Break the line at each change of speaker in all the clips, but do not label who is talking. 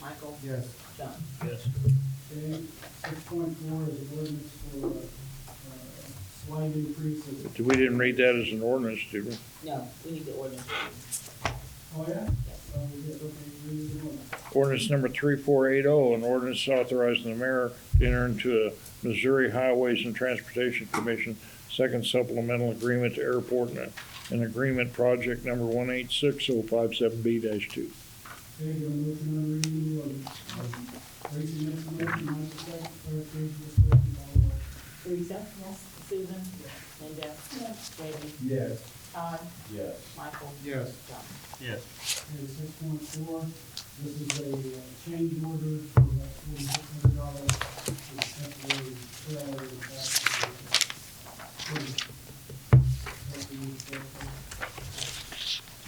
Michael?
Yes.
John?
Yes.
Okay, six point four is an ordinance for uh, uh, slight increase of,
We didn't read that as an ordinance, did we?
No, we need the ordinance.
oh yeah? Oh, yeah, okay, read the ordinance.
Ordinance number 3480, oh, an ordinance authorizing the mayor to enter into a Missouri Highways and Transportation Commission Second Supplemental Agreement to Airport and an Agreement Project Number
Okay,
186057B-2.
do I motion on reading the ordinance? Raise your next motion, my second, third, please, this way, by the way.
Teresa? Yes. Susan? Linda? Yes. Randy?
Yes.
Todd?
Yes.
Michael?
Yes.
John?
yes,
Okay, six point four, this is a uh, change order for that forty-six hundred dollars for the temporary trailer in the back. What we need to go for.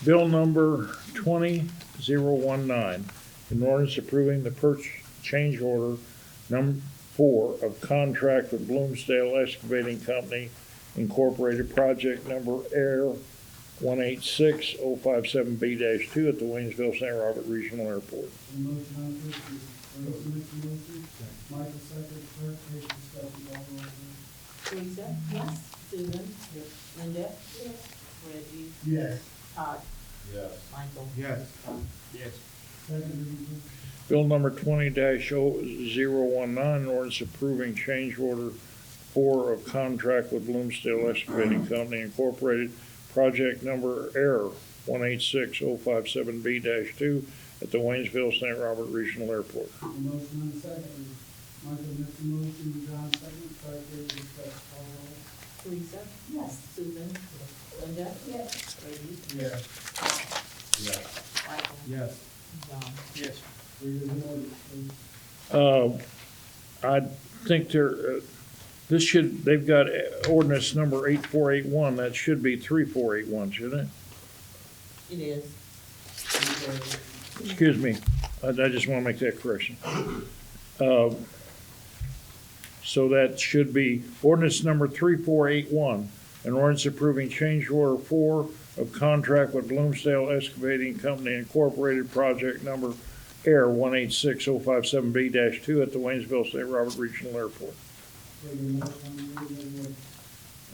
Bill number 20019, an ordinance approving the purchase change order number four of contract with Bloomsdale Excavating Company Incorporated, project number Air 186057B-2 at the Waynesville St. Robert Regional
The
Airport.
motion on first reading, Bruce makes the motion, Michael second, clerk, please discuss the all over.
Teresa? Yes. Susan? Yes. Linda? Yes. Reggie?
Yes.
Todd?
Yes.
Michael?
Yes.
John?
yes,
Second reading,
Bill number twenty oh 19 an ordinance approving change order four of contract with Bloomsdale Excavating Company Incorporated, project number air one eight six oh five seven B two at the Waynesville St. Robert Regional Airport.
the motion on second reading, Michael makes the motion, John second, clerk, please discuss the all over.
Teresa? Yes. Susan? Linda? Yes. Reggie?
Yes.
Yes.
Michael?
Yes.
John?
yes.
Read the ordinance, please.
Uh, I think there, uh, this should, they've got uh, ordinance number eight four eight one, that should be three four eight one, shouldn't it?
It is.
Excuse me, I, I just want to make that correction. Uh, So that should be ordinance number 3481, an ordinance approving change order four of contract with Bloomsdale Excavating Company Incorporated, project number AIR 186057B-2 at the Waynesville St. Robert Regional Airport.
Take a motion on the reading of the ordinance.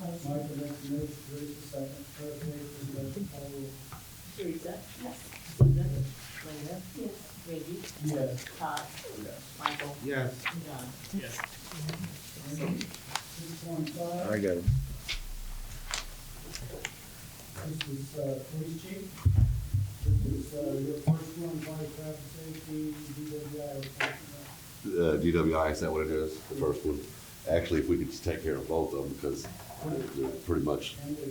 Michael makes the motion, Bruce second, clerk, please discuss the all over.
Teresa? Yes. Susan? Linda? Yes. Reggie?
Yes.
Todd? Michael?
Yes.
John?
Six point five.
I got it.
This is, uh, police chief. This is, uh, your first one, body traffic safety, DWI report.
uh, DWI, is that what it is, the first one? Actually, if we could just take care of both of them, because they're pretty much,
And the,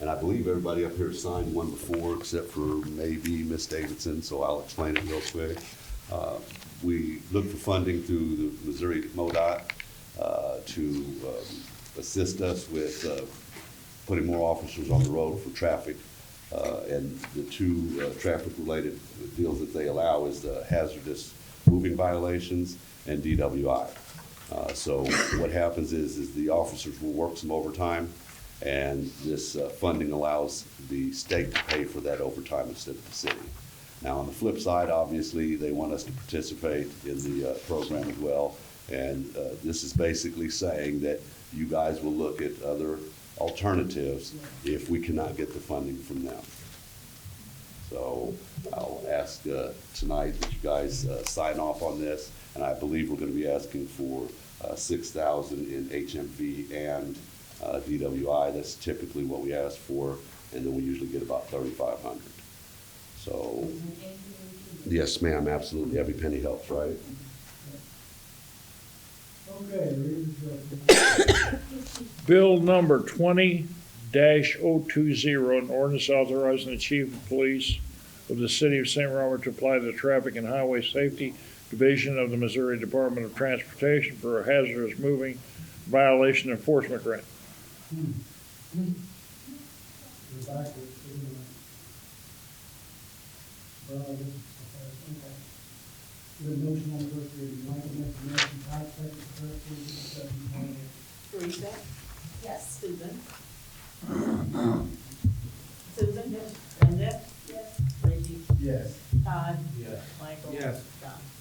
and I believe everybody up here signed one before, except for maybe Miss Davidson, so I'll explain it real quick. Uh, We looked for funding through the Missouri MoDOT uh, to um, assist us with uh, putting more officers on the road for traffic. Uh, And the two uh, traffic-related deals that they allow is the hazardous moving violations and DWI. Uh, So what happens is, is the officers will work some overtime, and this uh, funding allows the state to pay for that overtime instead of the city. Now, on the flip side, obviously, they want us to participate in the uh, program as well. And uh, this is basically saying that you guys will look at other alternatives if we cannot get the funding from them. So I'll ask uh, tonight that you guys uh, sign off on this, and I believe we're going to be asking for uh, 6,000 in HMV and uh, DWI. That's typically what we ask for, and then we usually get about 3,500. So, yes, ma'am, absolutely, every penny helps, right?
okay, read the judgment.
Bill number twenty 20 an ordinance authorizing the chief of police of the city of St. Robert to apply the Traffic and Highway Safety Division of the Missouri Department of Transportation for a hazardous moving violation enforcement grant.
We're back to the, uh, Well, okay. The motion on the first reading, Michael makes the motion, Todd second, clerk, please discuss the all over.
Teresa? Yes. Susan? Susan? Linda? Yes. Reggie?
Yes.
Todd?
Yes.
Michael?
Yes.
John?